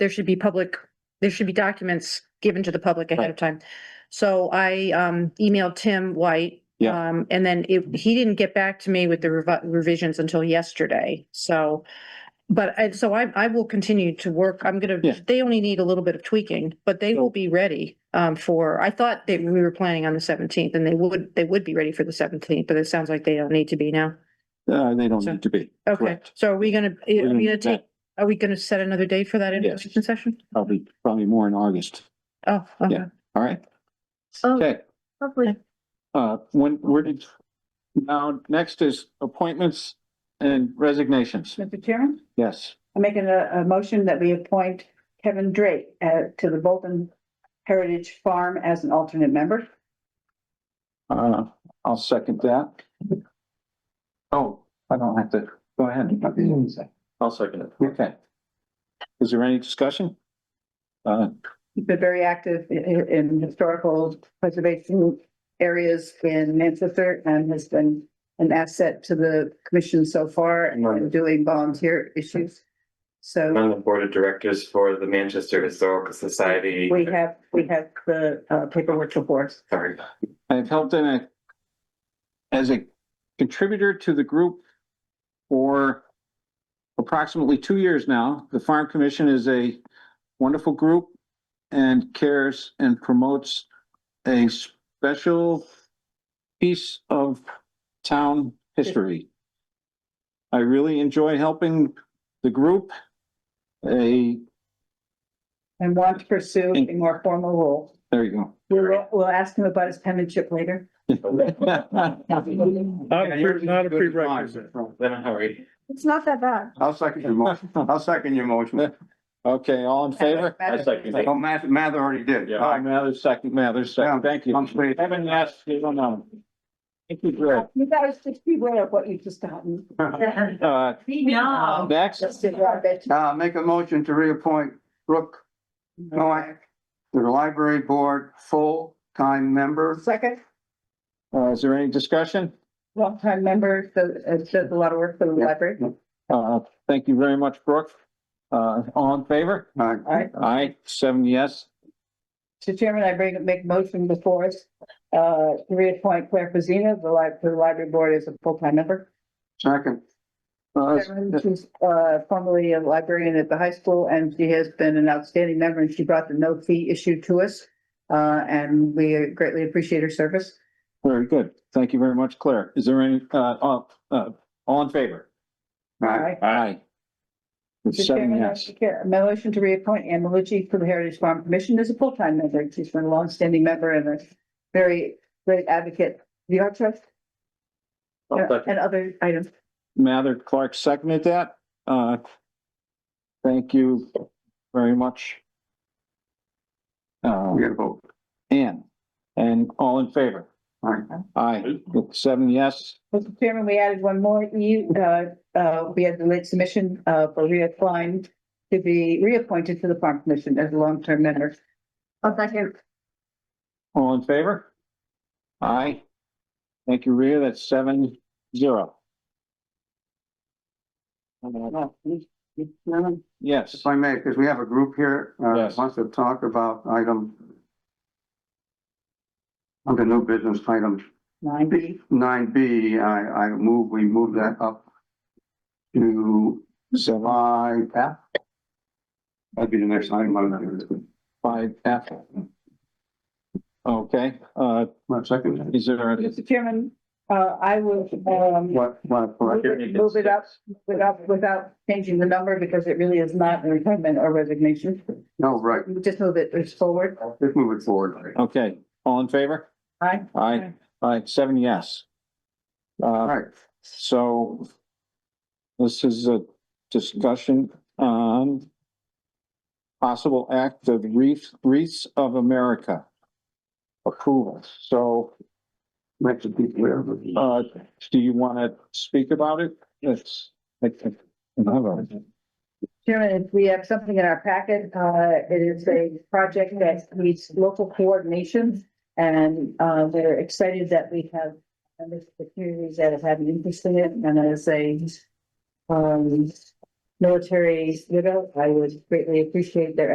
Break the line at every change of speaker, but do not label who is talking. there should be public, there should be documents given to the public ahead of time. So I um emailed Tim White.
Yeah.
Um, and then it, he didn't get back to me with the revi- revisions until yesterday, so. But I, so I I will continue to work. I'm gonna,
Yeah.
they only need a little bit of tweaking, but they will be ready. Um, for, I thought that we were planning on the seventeenth and they would, they would be ready for the seventeenth, but it sounds like they don't need to be now.
Uh, they don't
So-
need to be.
Okay,
Correct.
so are we gonna, are we
We're gonna
gonna
do
take,
that
are we gonna set another date for that
Yes.
information session?
Probably, probably more in August.
Oh, okay.
Yeah. All right.
Oh,
Okay.
lovely.
Uh, when, where did, now, next is appointments and resignations.
Mr. Chairman,
Yes.
I'm making a, a motion that we appoint Kevin Drake uh, to the Bolton Heritage Farm as an alternate member.
Uh, I'll second that. Oh, I don't have to, go ahead.
I'll second it.
Okay. Is there any discussion? Uh,
He's been very active i- i- in historical preservation areas in Manchester and has been an asset to the commission so far and
Right.
doing volunteer issues.
I'm
So
on the board of directors for the Manchester Historical Society.
we have, we have the uh, paperwork before us.
Sorry.
I've helped in a, as a contributor to the group for approximately two years now. The Farm Commission is a wonderful group and cares and promotes a special piece of town history. I really enjoy helping the group. A,
And want to pursue a more formal role.
there you
We'll, we'll ask him about his penmanship later.
go.
Not a pre- not a prerequisite.
Then a hurry.
It's not that bad.
I'll second your motion. I'll second your motion.
Okay, all in favor?
I second it.
Oh, Math, Math already did.
Yeah.
All
Aye,
right,
Mathers, second, Mathers, second, thank you.
I'm free.
Haven't asked, you don't know. Thank you, Greg.
You guys just beware of what you just gotten.
Uh,
No.
next,
Just to our bed.
Uh, make a motion to reappoint Brooke Noack to the library board, full-time member.
Second,
uh, is there any discussion?
longtime member, so uh, does a lot of work for the library.
Uh, thank you very much, Brooke. Uh, all in favor?
Uh,
All right,
Aye, seven yes.
Mr. Chairman, I bring, make motion before us, uh, to reappoint Claire Fazina, the li- to the library board as a full-time member.
second,
Uh,
Chairman, She's, uh, formerly a librarian at the high school, and she has been an outstanding member, and she brought the no-fee issue to us. Uh, and we greatly appreciate her service.
Very good, thank you very much, Claire. Is there any, uh, all, uh, all in favor?
All
Aye.
right.
Aye.
Mr.
Seven
Chairman, I
yes.
take a motion to reappoint Anne Malucci to the Heritage Farm Commission as a full-time member. She's been a longstanding member and a very great advocate, for the Art Trust
I'll
and
second.
and other items.
Mather Clark seconded that. Uh, thank you very much. Uh,
we gotta vote.
Ann, and all in favor?
All right.
Aye, with seven yes.
Mr. Chairman, we added one more. You, uh, uh, we had the late submission, uh, for Rhea Klein to be reappointed to the Farm Commission as a long-term member.
I'll second.
All in favor? Aye. Thank you, Rita. That's seven zero. Yes,
If I may, because we have a group here, uh,
Yes.
wants to talk about item under new business item
Nine E. B.
nine B, I, I move, we move that up to
seven,
five F. That'd be the next item on
five, F. Okay, uh,
my second.
is there, a-
Mr. Chairman, uh, I will, um,
What,
Move
what, what?
it- move it up without, without changing the number because it really is not a retirement or resignation.
No, right,
We Just move it forward.
let's move it forward.
okay, all in favor?
Aye.
Aye, aye, seven yes.
All
Uh,
right,
so this is a discussion on possible act of wreath, wreaths of America approval. So,
makes it be clear.
uh, do you want to speak about it? It's, I think, I have a-
Chairman, if we have something in our packet. Uh, it is a project that needs local coordination. And, uh, we're excited that we have members of the communities that have had an interest in it and as a, um, military widow, I would greatly appreciate their